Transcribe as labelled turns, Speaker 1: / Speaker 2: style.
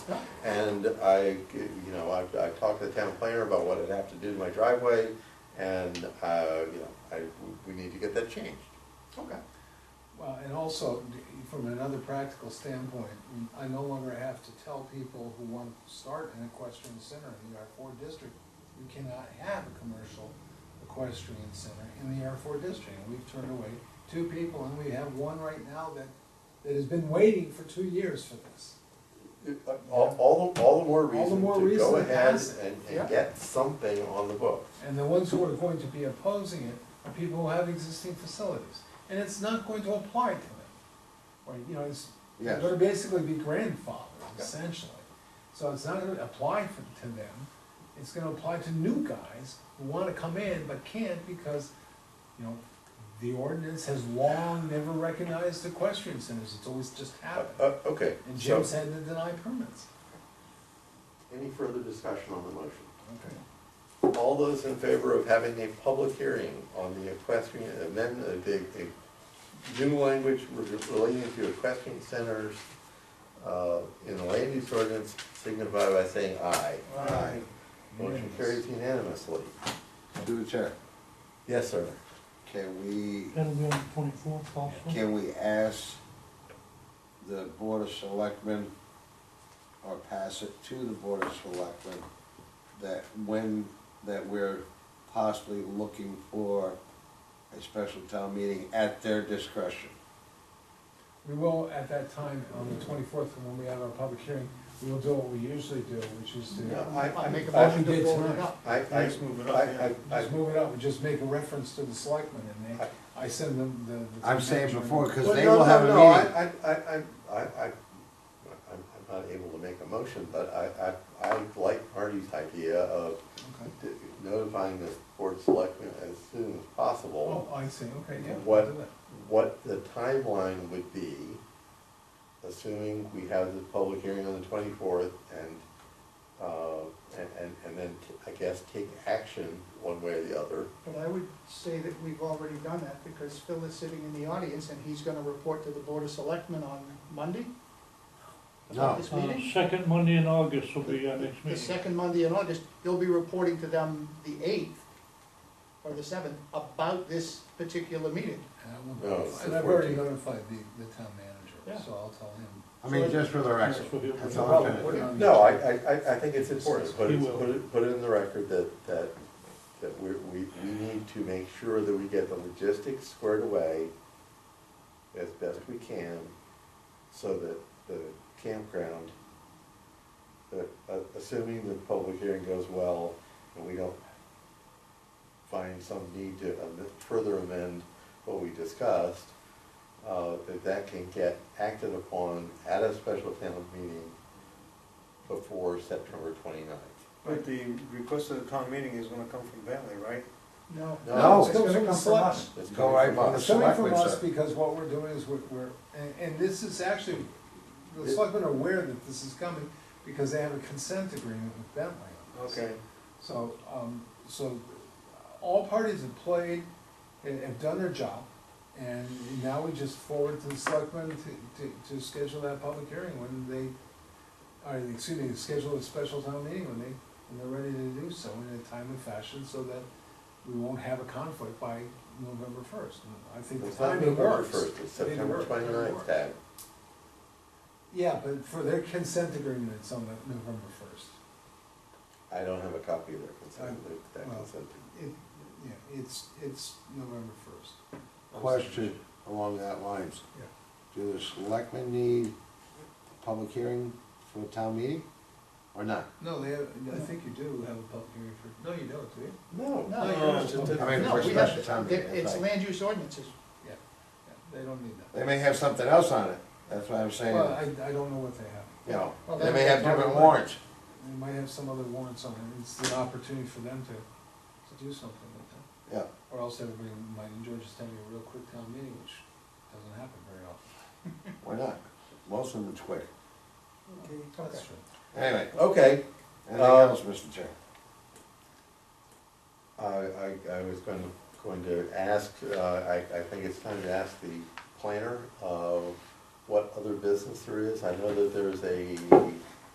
Speaker 1: And I, you know, I, I talked to the town planner about what I'd have to do to my driveway, and, uh, you know, I, we need to get that changed.
Speaker 2: Okay.
Speaker 3: Well, and also, from another practical standpoint, I no longer have to tell people who want to start an equestrian center in the R four district, you cannot have a commercial equestrian center in the R four district. And We've turned away two people, and we have one right now that, that has been waiting for two years for this.
Speaker 1: All, all, the- all the more
Speaker 3: All the
Speaker 1: reason
Speaker 3: more
Speaker 1: to
Speaker 3: reason
Speaker 1: go
Speaker 3: to
Speaker 1: ahead
Speaker 3: pass it.
Speaker 1: and,
Speaker 3: Yeah.
Speaker 1: and get something on the book.
Speaker 3: And the ones who are going to be opposing it are people who have existing facilities, and it's not going to apply to them. Or, you know, it's,
Speaker 1: Yes.
Speaker 3: they're basically be grandfathered
Speaker 1: Okay.
Speaker 3: essentially. So it's not gonna apply for, to them, it's gonna apply to new guys who wanna come in but can't because, you know, the ordinance has long never recognized equestrian centers, it's always just
Speaker 1: Uh,
Speaker 3: happened.
Speaker 1: uh, okay,
Speaker 3: And
Speaker 1: so,
Speaker 3: Jim's had to deny permits.
Speaker 1: any further discussion on the motion?
Speaker 3: Okay.
Speaker 1: All those in favor of having a public hearing on the equestrian, amendment, the, the new language relating to equestrian centers, uh, in the land use ordinance, signify by saying aye.
Speaker 3: Aye.
Speaker 1: Motion carries unanimously.
Speaker 2: Through the chair,
Speaker 1: Yes, sir.
Speaker 2: can we,
Speaker 4: That'll be on the twenty-fourth also.
Speaker 2: can we ask the Board of Selectmen or pass it to the Board of Selectmen that when, that we're possibly looking for a special town meeting at their discretion?
Speaker 3: We will, at that time, on the twenty-fourth, when we have our public hearing, we will do what we usually do, which is to.
Speaker 1: No, I- I make a
Speaker 3: All we
Speaker 1: motion
Speaker 3: did
Speaker 4: forward
Speaker 3: tonight.
Speaker 4: it up.
Speaker 1: I, I,
Speaker 4: Let's move it up, yeah.
Speaker 1: I, I, I,
Speaker 3: Just move it up, and just make a reference to the selectmen, and they, I send them the. the-
Speaker 2: I'm saying before, because
Speaker 1: Well,
Speaker 2: they
Speaker 1: no,
Speaker 2: will
Speaker 1: no,
Speaker 2: have a
Speaker 1: no, I-
Speaker 2: meeting.
Speaker 1: I, I, I, I, I, I'm, I'm not able to make a motion, but I, I, I like Marty's idea of
Speaker 3: Okay.
Speaker 1: notifying the board of selectmen as soon as
Speaker 3: Oh,
Speaker 1: possible
Speaker 3: I see, okay, yeah.
Speaker 1: What-
Speaker 3: do that.
Speaker 1: what the timeline would be, assuming we have the public hearing on the twenty-fourth and, uh, and, and, and then t- I guess take action one way or the other.
Speaker 5: But I would say that we've already done that because Phil is sitting in the audience and he's gonna report to the Board of Selectmen on Monday,
Speaker 2: No,
Speaker 5: this
Speaker 4: Uh,
Speaker 5: meeting.
Speaker 4: Second Monday in August will be our next
Speaker 5: The
Speaker 4: meeting.
Speaker 5: second Monday in August, you'll be reporting to them the eighth or the seventh about this particular meeting.
Speaker 3: And I
Speaker 1: No,
Speaker 3: will notify-
Speaker 1: it's
Speaker 3: And
Speaker 1: the
Speaker 3: I've already
Speaker 1: 14th.
Speaker 3: notified the, the town manager,
Speaker 5: Yeah.
Speaker 3: so I'll tell him.
Speaker 2: I mean, just for the record,
Speaker 4: That's what he'll-
Speaker 2: that's all
Speaker 3: Well,
Speaker 2: I'm
Speaker 3: put it
Speaker 2: saying.
Speaker 3: on the
Speaker 1: No, I,
Speaker 3: agenda.
Speaker 1: I, I- I think it's important, put
Speaker 4: He
Speaker 1: it,
Speaker 4: will.
Speaker 1: put it, put it in the record that, that, that we, we, we need to make sure that we get the logistics squared away as best we can, so that the campground, that, uh, assuming the public hearing goes well, and we don't find some need to am- further amend what we discussed, uh, that that can get acted upon at a special town meeting before September twenty-ninth.
Speaker 6: But the request of the town meeting is gonna come from Bentley, right?
Speaker 5: No.
Speaker 2: No.
Speaker 3: It comes from the selectmen.
Speaker 1: It's
Speaker 2: Go
Speaker 1: coming
Speaker 2: right
Speaker 1: from
Speaker 2: from the
Speaker 1: us.
Speaker 3: It's coming from
Speaker 2: Selectmen,
Speaker 3: us
Speaker 2: sir.
Speaker 3: because what we're doing is we're, we're, and, and this is actually, the
Speaker 1: It-
Speaker 3: selectmen are aware that this is coming because they have a consent agreement with Bentley. on this.
Speaker 6: Okay.
Speaker 3: So, um, so all parties have played and have done their job. And now we just forward to the selectmen to, to, to schedule that public hearing when they, or, excuse me, schedule a special town meeting when they, when they're ready to do so in a timely fashion so that we won't have a conflict by November first. I think the
Speaker 1: It's not
Speaker 3: timing
Speaker 1: November
Speaker 3: works.
Speaker 1: first, it's
Speaker 3: I think
Speaker 1: September
Speaker 3: it works. I think it
Speaker 1: twenty-ninth,
Speaker 3: works.
Speaker 1: Ted.
Speaker 3: Yeah, but for their consent agreement, it's on the November first.
Speaker 1: I don't have a copy of their consent,
Speaker 3: Uh,
Speaker 1: that- that
Speaker 3: well,
Speaker 1: consent.
Speaker 3: It, yeah, it's, it's November first.
Speaker 2: Question along that lines.
Speaker 3: Yeah.
Speaker 2: Do the selectmen need a public hearing for a town meeting or not?
Speaker 3: No, they have, I think you do have a public hearing for, no, you don't, do you?
Speaker 1: No.
Speaker 5: No,
Speaker 1: it's
Speaker 5: no,
Speaker 1: just
Speaker 3: no.
Speaker 1: a-
Speaker 2: I mean,
Speaker 5: No,
Speaker 2: for a
Speaker 5: we have-
Speaker 2: special town meeting.
Speaker 5: It's
Speaker 2: that's right.
Speaker 5: land use ordinances.
Speaker 3: Yeah, yeah, they don't need that.
Speaker 2: They may have something else on it, that's what I'm saying,
Speaker 3: Well, I, I don't know what they have.
Speaker 2: you know,
Speaker 5: Well,
Speaker 2: they
Speaker 5: that-
Speaker 2: may have
Speaker 5: that-
Speaker 2: different warrants.
Speaker 3: They might have some other warrants on it, it's the opportunity for them to, to do something with that.
Speaker 2: Yeah,
Speaker 3: Or else everybody might enjoy just having a real quick town meeting, which doesn't happen very often.
Speaker 2: why not? Most of them are quick.
Speaker 3: That's true.
Speaker 2: Anyway,
Speaker 1: Okay,
Speaker 2: anything
Speaker 1: Uh,
Speaker 2: else, Mr. Chair?
Speaker 1: I, I, I was going to, going to ask, uh, I, I think it's time to ask the planner, uh, what other business there is. I know that there's a